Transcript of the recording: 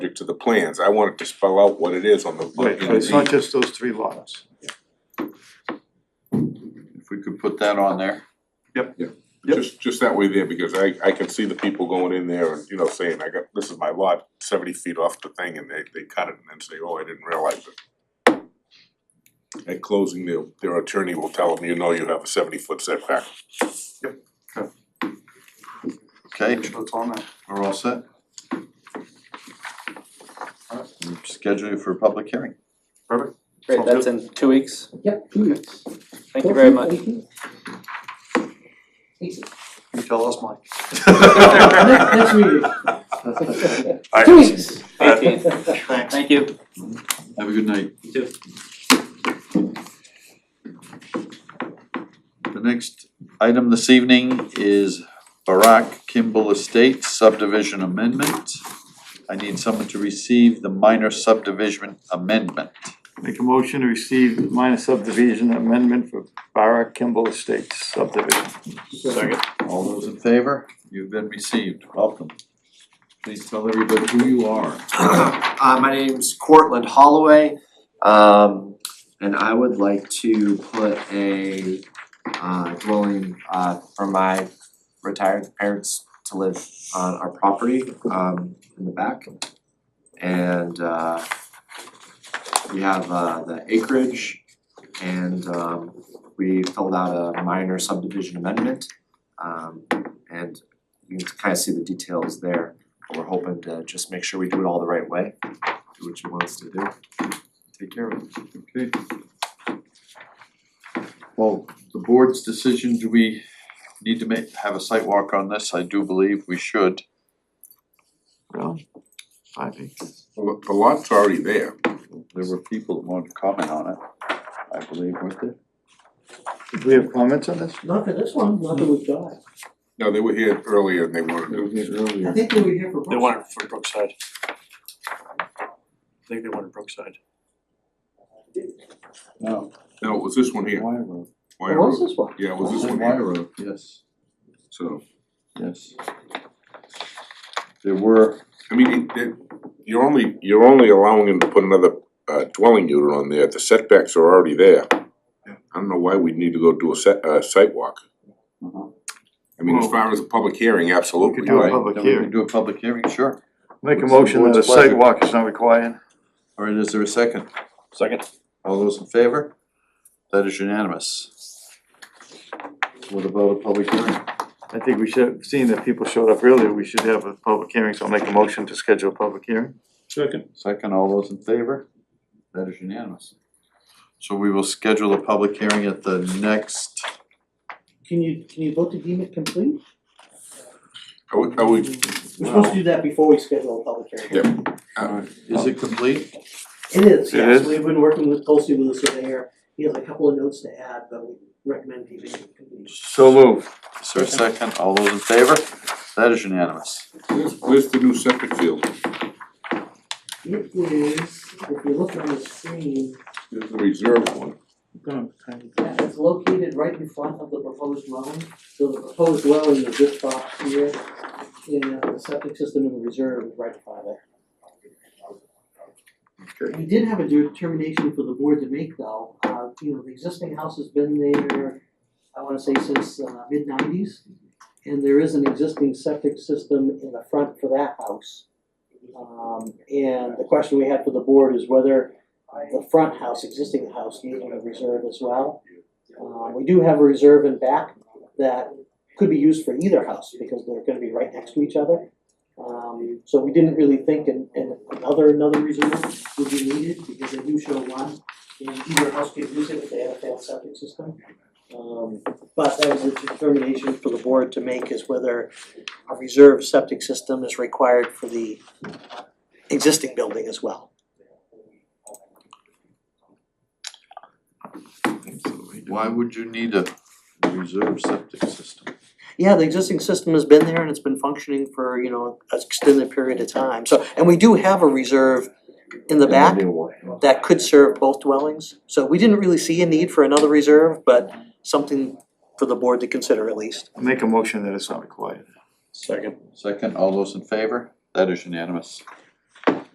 specific to the plans, I wanted to spell out what it is on the. Right, so it's not just those three lots. If we could put that on there. Yep. Just, just that way there, because I, I can see the people going in there and, you know, saying, I got, this is my lot, seventy feet off the thing, and they, they cut it and then say, oh, I didn't realize it. At closing, their, their attorney will tell them, you know, you have a seventy foot setback. Okay, So it's on that. we're all set. Alright, Schedule you for a public hearing. Perfect. Great, that's in two weeks. Yep, two minutes. Thank you very much. Thank you. Easy. You tell us, Mike. Next, next meeting. Two weeks. Eighteenth. Thanks. Thank you. Have a good night. You too. The next item this evening is Barack Kimball Estates subdivision amendment. I need someone to receive the minor subdivision amendment. Make a motion to receive the minor subdivision amendment for Barra Kimball Estates subdivision. Second. All those in favor? You've been received. Welcome. Please tell everybody who you are. Uh, my name's Cortland Holloway, um, and I would like to put a uh dwelling uh for my retired parents to live on our property um in the back. And uh we have uh the acreage and um we filled out a minor subdivision amendment. Um and you can kind of see the details there, but we're hoping to just make sure we do it all the right way do what you want us to do. Take care of it. Okay. Well, the board's decision, do we need to make, have a site walk on this? I do believe we should. Well, I think. The the lot's already there, There were people that wanted to comment on it, I believe, weren't there? Do we have comments on this? Not for this one, not that we've got. no, they were here earlier and they wanted to. I think they were here for. They want it for Brookside. I think they want it Brookside. No. No, it was this one here, Wire Road. Wire What was Road, Oh, this one? yeah, it was this Was it one Wire here, Road? Yes, so, yes. There were, I mean, it- it- you're only, you're only allowing him to put another uh dwelling unit on there, the setbacks are already there. I don't know why we'd need to go do a set, uh sidewalk. Mhm. I mean, as Mm-hmm. Well- far as a public hearing, We absolutely, could do a right, public then we hearing. can do a public hearing, sure. Make a What's the motion that a board's pleasure? sidewalk is not required. All right, is there a second? Second. All those in favor? That is unanimous. What about a public hearing? I think we should, seeing that people showed up earlier, we should have a public hearing, so I'll make a motion to schedule a public hearing. Second. Second, all those in favor? That is unanimous. So we will schedule a public hearing at the next, Can you, can you vote to deem it complete? are we, are we, We're supposed to do that before we schedule a public hearing. Yep. uh, is it complete? It is, It yes, is? we've been working with closely with the surveyor, he has a couple of notes to add, but we recommend keeping it complete. So moved. Is there a second? All those in favor? That is unanimous. where's, where's the new septic field? It is, if you look on the screen, There's the reserve one, yeah, it's located right in front of the proposed dwelling. So the proposed dwelling is this box here, and uh, the septic system in the reserve is right by there. Okay. We did have a determination for the board to make though, uh, you know, the existing house has been there, I wanna say since uh mid nineties. And there is an existing septic system in the front for that house. Um, and the question we had for the board is whether the front house, existing house, needed a reserve as well. Uh, we do have a reserve in back that could be used for either house because they're gonna be right next to each other. Um, so we didn't really think an an another another reserve would be needed because they do show one, and either house could use it if they had a failed septic system. Um, but that was a determination for the board to make is whether a reserve septic system is required for the existing building as well. Why would you need a reserve septic system? Yeah, the existing system has been there and it's been functioning for, you know, an extended period of time, so, and we do have a reserve in the back. that could serve both dwellings. So we didn't really see a need for another reserve, but something for the board to consider at least. Make a motion that it's not required. Second. Second, all those in favor? That is unanimous.